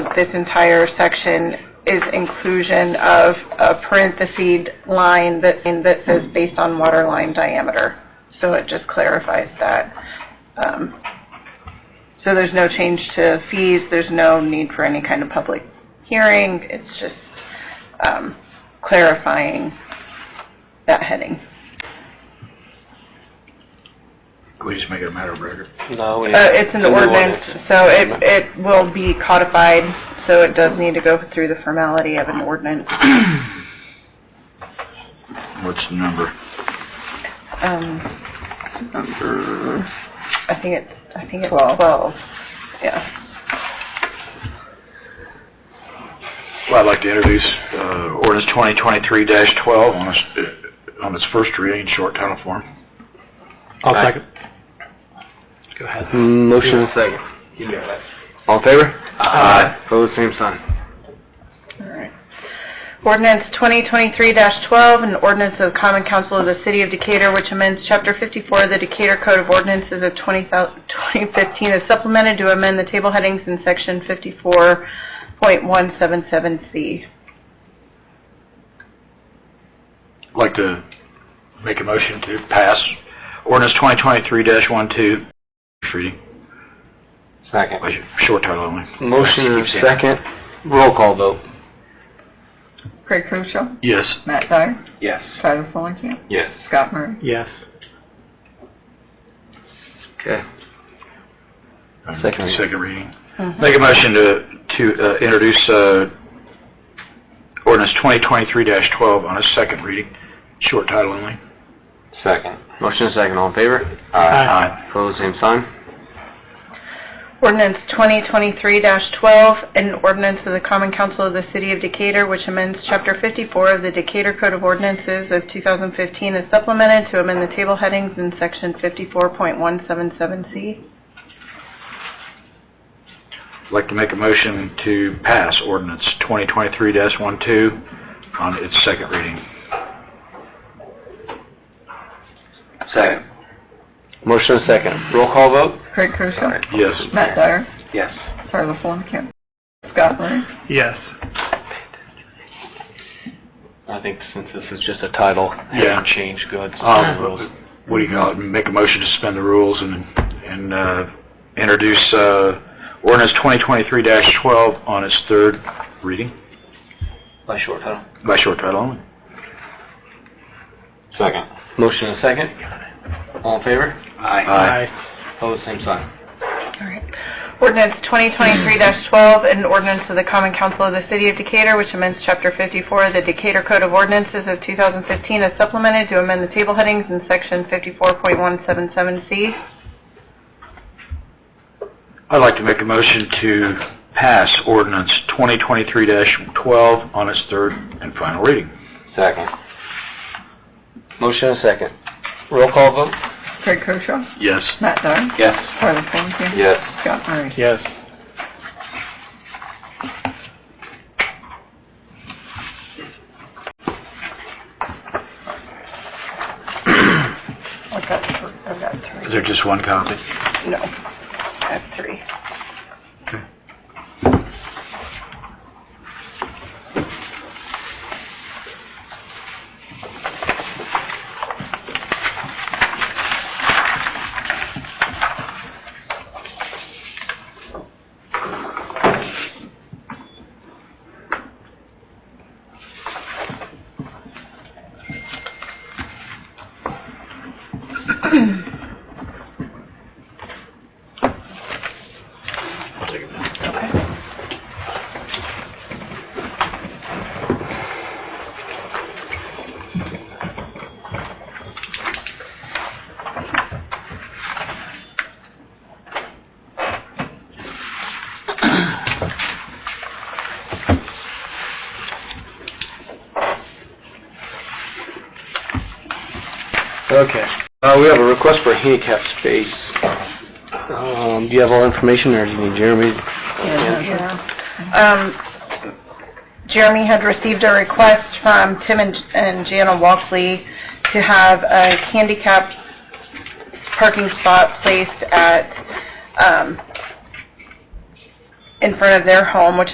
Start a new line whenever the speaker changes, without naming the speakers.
this entire section is inclusion of a parentheses line that, and that says based on water line diameter. So it just clarifies that. Um, So there's no change to fees, there's no need for any kind of public hearing, it's just um, clarifying that heading.
Can we just make it a matter of record?
No, we-
Uh, It's in the ordinance, so it, it will be codified, so it does need to go through the formality of an ordinance.
What's the number?
Um,
Number,
I think it's, I think it's 12. Yeah.
well, I'd like to introduce uh, ordinance 2023-12 on its, uh, on its first reading, short title form.
I'll second.
Go ahead.
Motion and second.
You got it.
All in favor? Aye. Pose same sign.
All right. Ordinance 2023-12, an ordinance of the Common Council of the City of Decatur, which amends Chapter 54 of the Decatur Code of Ordinances of 20 2015, is supplemented to amend the table headings in Section 54.177C.
I'd like to make a motion to pass ordinance 2023-12, first reading,
Second.
Wait, short title only.
Motion and
Keep saying that.
second. Roll call vote.
Craig Koshaw,
Yes.
Matt Dyer,
Yes.
Tyler Fulenkamp,
Yes.
Scott Murray.
Yes. Okay. Second reading.
Second reading.
Mm-hmm.
Make a motion to, to uh, introduce uh, ordinance 2023-12 on its second reading, short title only.
Second. Motion and second. All in favor?
Aye.
Pose same sign.
Ordinance 2023-12, an ordinance of the Common Council of the City of Decatur, which amends Chapter 54 of the Decatur Code of Ordinances of 2015 is supplemented to amend the table headings in Section 54.177C.
I'd like to make a motion to pass ordinance 2023-12 on its second reading.
Second. Motion and second. Roll call vote?
Craig Koshaw.
Yes.
Matt Dyer.
Yes.
Tyler Fulenkamp. Scott Murray.
Yes.
I think since this is just a title,
Yeah.
change goods.
Um, What do you call it? Make a motion to suspend the rules and, and uh, introduce uh, ordinance 2023-12 on its third reading
By short title.
by short title only.
Second. Motion and second. All in favor?
Aye.
Pose same sign.
All right. Ordinance 2023-12, an ordinance of the Common Council of the City of Decatur, which amends Chapter 54 of the Decatur Code of Ordinances of 2015 as supplemented to amend the table headings in Section 54.177C.
I'd like to make a motion to pass ordinance 2023-12 on its third and final reading.
Second. Motion and second. Roll call vote?
Craig Koshaw.
Yes.
Matt Dyer.
Yes.
Tyler Fulenkamp.
Yes.
Scott Murray.
Yes.
I've got thr- I've got three.
Is there just one copy?
No, I have three.
I'll take it.
Okay. Uh, we have a request for handicap space. Um, do you have all information or do you need Jeremy?
Um, Jeremy had received a request from Tim and- and Jana Walkley to have a handicapped parking spot placed at um, in front of their home, which